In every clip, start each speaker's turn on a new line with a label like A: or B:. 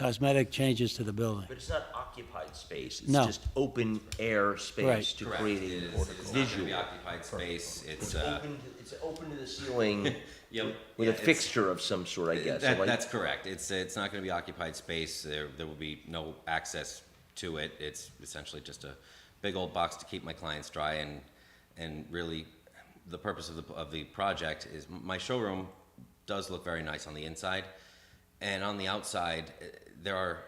A: cosmetic changes to the building.
B: But it's not occupied space, it's
A: No.
B: just open air space
A: Right.
B: to
C: Correct.
B: create
C: It
B: a
C: is- It's not gonna
B: visual.
C: be occupied space, it's,
B: It's
C: uh,
B: open, to- it's open to the ceiling
C: yep.
B: with
C: yeah,
B: a
C: it's-
B: fixture of some sort, I guess. so
C: That,
B: like-
C: that's correct, it's, uh, it's not gonna be occupied space, there, there will be no access to it, it's essentially just a big old box to keep my clients dry and, and really, the purpose of the, of the project is, my showroom does look very nice on the inside, and on the outside, eh, there are,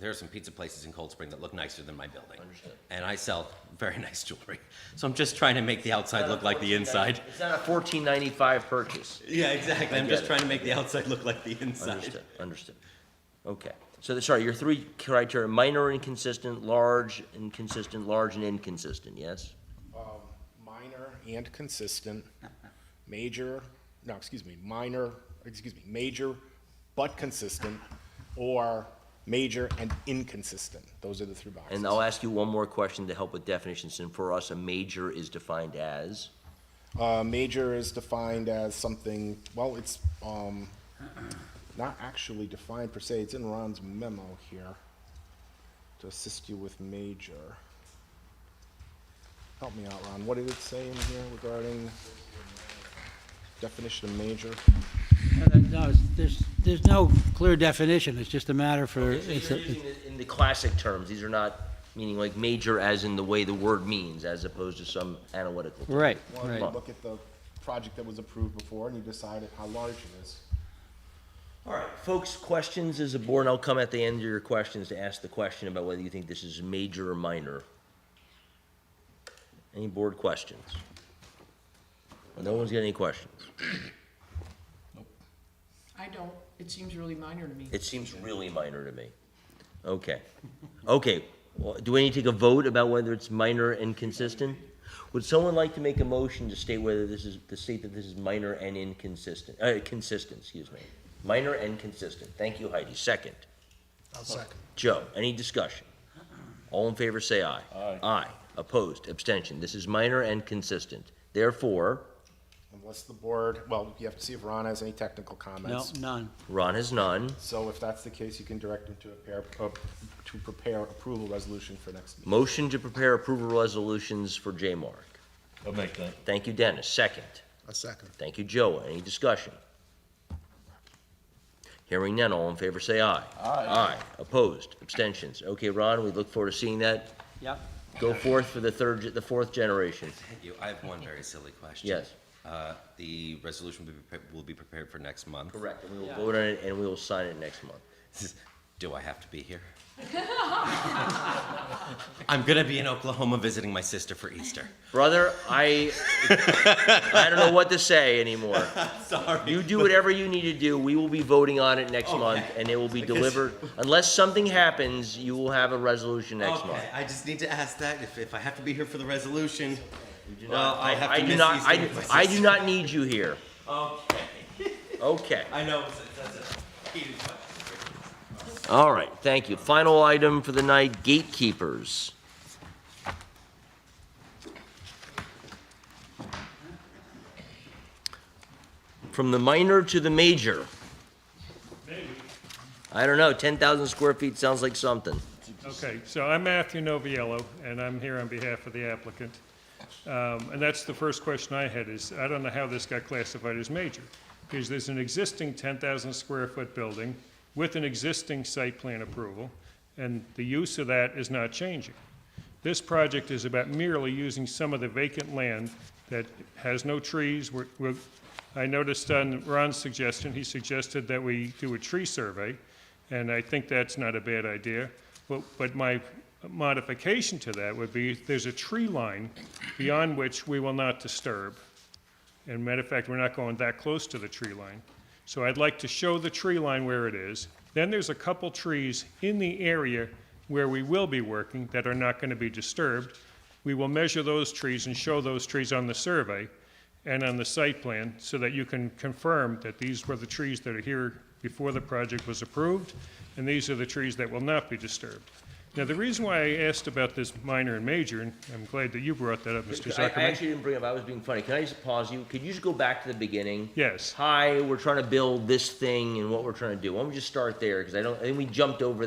C: there are some pizza places in Cold Spring that look nicer than my building.
B: Understood.
C: And I sell very nice jewelry, so I'm just trying to make the outside look like the inside.
B: It's not a fourteen ninety-five purchase.
C: Yeah, exactly. I'm
B: get
C: just
B: it.
C: trying to make the outside look like the inside.
B: Understood, understood. Okay, so, the- sorry, your three criteria, minor inconsistent, large inconsistent, large and inconsistent, yes?
D: um, minor and consistent, major, no, excuse me, minor, excuse me, major but consistent, or major and inconsistent. Those are the three boxes.
B: And I'll ask you one more question to help with definitions, and for us, a major is defined as?
D: Uh, major is defined as something, well, it's, um, not actually defined per se, it's in Ron's memo here to assist you with major. Help me out, Ron, what did it say in here regarding definition of major?
A: No, it's- there's, there's no clear definition, it's just a matter for, it's,
B: So
A: a-
B: you're using it in the classic terms, these are not meaning like major as in the way the word means, as opposed to some analytical term.
A: right,
D: Well, you
A: right.
D: look at the project that was approved before and you decided how large it is.
B: All right, folks, questions as a board, and I'll come at the end of your questions to ask the question about whether you think this is major or minor. Any board questions? No one's got any questions?
E: I don't, it seems really minor to me.
B: It seems really minor to me. Okay, okay, well, do we need to take a vote about whether it's minor and consistent? Would someone like to make a motion to state whether this is, to state that this is minor and inconsistent, uh, consistent, excuse me? Minor and consistent, thank you Heidi, second.
F: I'll second.
B: Joe, any discussion? All in favor, say aye. Aye. Aye. Opposed, abstention. This is minor and consistent. Therefore,
D: Unless the board, well, you have to see if Ron has any technical
A: No,
D: comments.
A: none.
B: Ron has none.
D: So if that's the case, you can direct him to prepare, uh, to prepare approval resolution for next meeting.
B: Motion to prepare approval resolutions for J-Mark.
G: I'll make that.
B: Thank you, Dennis. Second.
F: A second.
B: Thank you, Joe. Any discussion? Hearing none. All in favor, say aye. Aye. Aye. Opposed, abstentions. Okay, Ron, we look forward to seeing that.
A: Yep.
B: Go forth for the third, ge- the fourth generation.
C: You, I have one very silly question.
B: Yes.
C: Uh, the resolution will be, prepa- will be prepared for next month.
B: Correct. And we will vote on it and we will sign it next month.
C: Do I have to be here? I'm gonna be in Oklahoma visiting my sister for Easter.
B: Brother, I I don't know what to say anymore.
C: Sorry.
B: You do whatever you need to do. We will be voting on it next month,
C: Okay.
B: and it will be
C: Because-
B: delivered. Unless something happens, you will have a resolution next month.
C: Okay, I just need to ask that, if, if I have to be here for the resolution, well,
B: Uh,
C: I have to
B: do
C: miss
B: not.
C: Easter
B: I,
C: with my
B: I do
C: sister.
B: not need you here.
C: Okay,
B: Okay.
C: I know, it's- that's a heated question.
B: All right. Thank you. Final item for the night: gatekeepers. From the minor to the major. I don't know, 10,000 square feet sounds like something.
H: Okay, so I'm Matthew Noviello, and I'm here on behalf of the applicant. Um, And that's the first question I had, is I don't know how this got classified as major, because there's an existing 10,000 square foot building with an existing site plan approval, and the use of that is not changing. This project is about merely using some of the vacant land that has no trees. We're- we're- I noticed on Ron's suggestion, he suggested that we do a tree survey, and I think that's not a bad idea. But, but my modification to that would be, there's a tree line beyond which we will not disturb. And matter of fact, we're not going that close to the tree line. So I'd like to show the tree line where it is. Then there's a couple trees in the area where we will be working that are not going to be disturbed. We will measure those trees and show those trees on the survey and on the site plan so that you can confirm that these were the trees that are here before the project was approved, and these are the trees that will not be disturbed. Now, the reason why I asked about this minor and major, and I'm glad that you brought that up, Mr.
B: I, I
H: Zuckerman.
B: actually didn't bring up, I was being funny. Can I just pause you? Could you just go back to the beginning?
H: Yes.
B: Hi, we're trying to build this thing and what we're trying to do. Why don't we just start there? Because I don't, I think we jumped over that.